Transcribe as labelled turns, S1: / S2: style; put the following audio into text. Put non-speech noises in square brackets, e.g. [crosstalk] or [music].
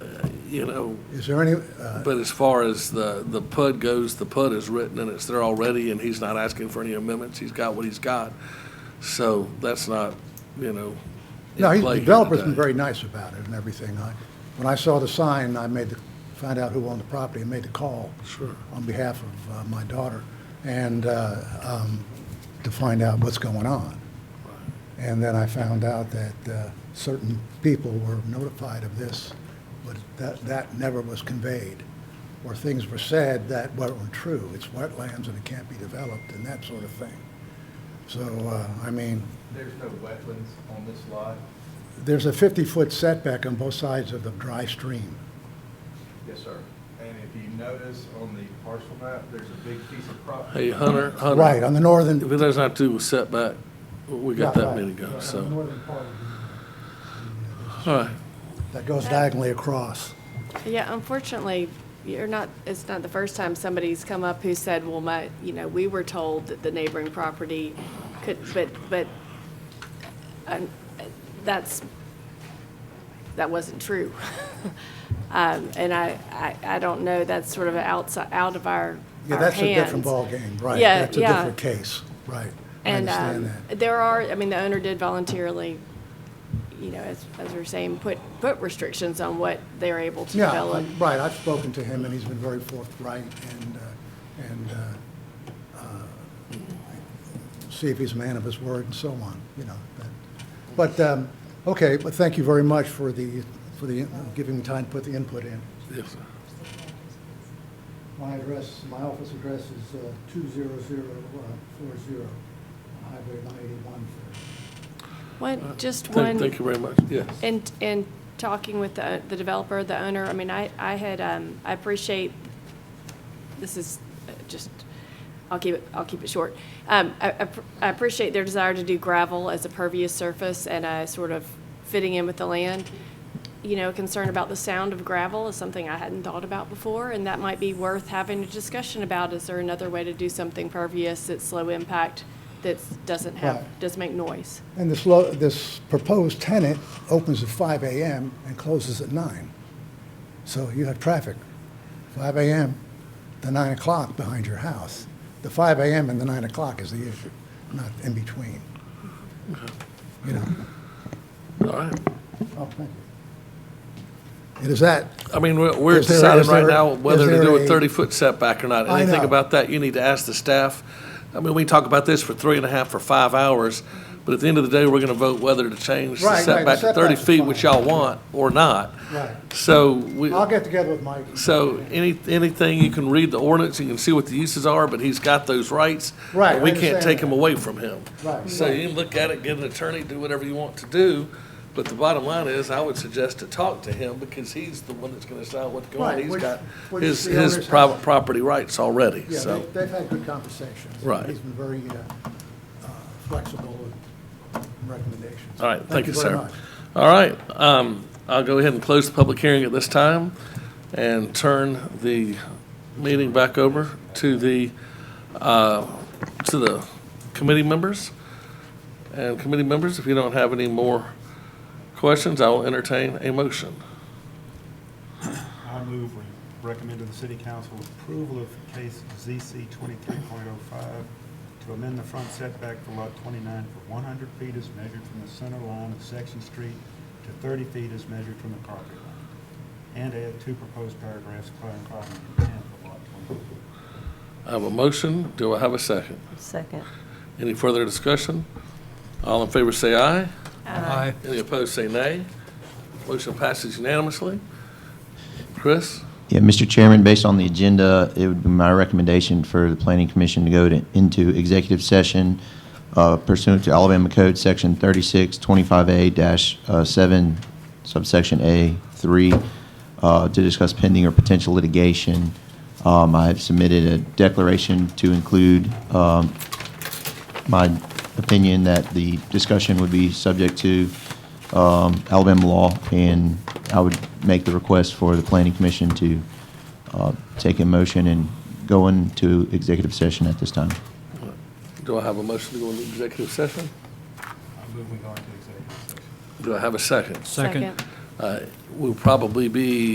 S1: you know,
S2: Is there any, uh,
S1: but as far as the, the PUD goes, the PUD is written and it's there already, and he's not asking for any amendments. He's got what he's got. So that's not, you know. in
S2: no, he-
S1: play
S2: the
S1: here
S2: developer's been
S1: today.
S2: very nice about it and everything. I- When I saw the sign, I made the, found out who owned the property and made the call.
S1: Sure.
S2: On behalf of uh, my daughter and, uh, um, to find out what's going on. And then I found out that uh, certain people were notified of this, but that, that never was conveyed. Or things were said that weren't true. It's wetlands and it can't be developed and that sort of thing. So, uh, I mean,
S3: There's no wetlands on this lot?
S2: There's a 50-foot setback on both sides of the dry stream.
S3: Yes, sir. And if you notice on the parcel map, there's a big piece of property.
S1: Hey, Hunter, Hunter.
S2: Right, on the northern,
S1: If it doesn't have to do with setback, we got
S2: Yeah,
S1: that
S2: right.
S1: many to go, so.
S2: northern part
S1: All right,
S2: that goes diagonally across.
S4: Yeah, unfortunately, you're not, it's not the first time somebody's come up who said, well, my, you know, we were told that the neighboring property could, but, but um, that's, that wasn't true. [laughs] Um, And I, I, I don't know, that's sort of outside, out of our,
S2: Yeah,
S4: our
S2: that's a different
S4: hands.
S2: ballgame, right.
S4: Yeah,
S2: That's a
S4: yeah.
S2: different case, right. I
S4: And
S2: understand
S4: um,
S2: that.
S4: there are, I mean, the owner did voluntarily, you know, as, as we we're saying, put, put restrictions on what they're able to
S2: Yeah,
S4: develop.
S2: I'm- right, I've spoken to him, and he's been very forthright, and, uh, and uh, uh, see if he's a man of his word and so on, you know. that- But, um, okay, but thank you very much for the, for the, giving me time to put the input in.
S1: yes, sir.
S2: My address, my office address is uh, two zero zero uh, four zero, Highway one eighty-one.
S4: One, just one.
S1: Thank, thank you very much, yes.
S4: And, and talking with the the developer, the owner, I mean, I, I had, um, I appreciate, this is uh, just, I'll keep it, I'll keep it short. Um, I, I pr- I appreciate their desire to do gravel as a pervious surface and a sort of fitting in with the land. You know, concern about the sound of gravel is something I hadn't thought about before, and that might be worth having a discussion about. Is there another way to do something pervious that's low impact, that doesn't have,
S2: Right.
S4: doesn't make noise?
S2: And this lo, this proposed tenant opens at five AM and closes at nine. So you have traffic, five AM to nine o'clock behind your house. The five AM and the nine o'clock is the issue, not in between. You know,
S1: All right.
S2: oh, thank you. It is that,
S1: I mean, we're, we're
S2: Is there-
S1: deciding
S2: is
S1: right
S2: there-
S1: now whether
S2: is
S1: to do
S2: there
S1: a
S2: a-
S1: thirty-foot setback or not.
S2: I
S1: Anything
S2: know.
S1: about that, you need to ask the staff. I mean, we talk about this for three and a half, for five hours, but at the end of the day, we're gonna vote whether to change the
S2: Right, right, the
S1: setback to thirty
S2: setback's
S1: feet, which
S2: fine.
S1: y'all want, or not.
S2: Right.
S1: So we,
S2: I'll get together with Mike.
S1: so any, anything, you can read the ordinance, you can see what the uses are, but he's got those rights.
S2: Right,
S1: and
S2: I
S1: We can't
S2: understand
S1: take him
S2: that.
S1: away from him.
S2: Right.
S1: So you can look at it, get an attorney, do whatever you want to do, but the bottom line is, I would suggest to talk to him, because he's the one that's gonna decide what's going on.
S2: Right,
S1: He's
S2: which-
S1: got
S2: which
S1: his,
S2: the
S1: his
S2: owners
S1: private
S2: have.
S1: property rights already,
S2: Yeah,
S1: so.
S2: they- they've had good conversations.
S1: Right.
S2: He's been very uh, uh, flexible with recommendations.
S1: All right, thank you,
S2: very
S1: sir.
S2: much.
S1: All right, um, I'll go ahead and close the public hearing at this time and turn the meeting back over to the, uh, to the committee members. And committee members, if you don't have any more questions, I will entertain a motion.
S5: I move we recommend to the city council approval of case ZC twenty-three point oh five to amend the front setback for lot twenty-nine for one hundred feet as measured from the center line of Section Street to thirty feet as measured from the property line. And add two proposed paragraphs clarifying the intent of lot twenty-nine.
S1: I have a motion, do I have a second?
S6: Second.
S1: Any further discussion? All in favor say aye. Aye. Any opposed say nay. Motion passes unanimously. Chris?
S7: Yeah, Mr. Chairman, based on the agenda, it would be my recommendation for the Planning Commission to go to, into executive session uh, pursuant to Alabama Code Section 3625A-7 uh, subsection A3 uh, to discuss pending or potential litigation. Um, I have submitted a declaration to include um, my opinion that the discussion would be subject to um, Alabama law, and I would make the request for the Planning Commission to uh, take a motion and go into executive session at this time.
S1: Do I have a motion to go into executive session?
S5: I move we go into executive session.
S1: Do I have a second?
S4: Second.
S1: Uh, We'll probably be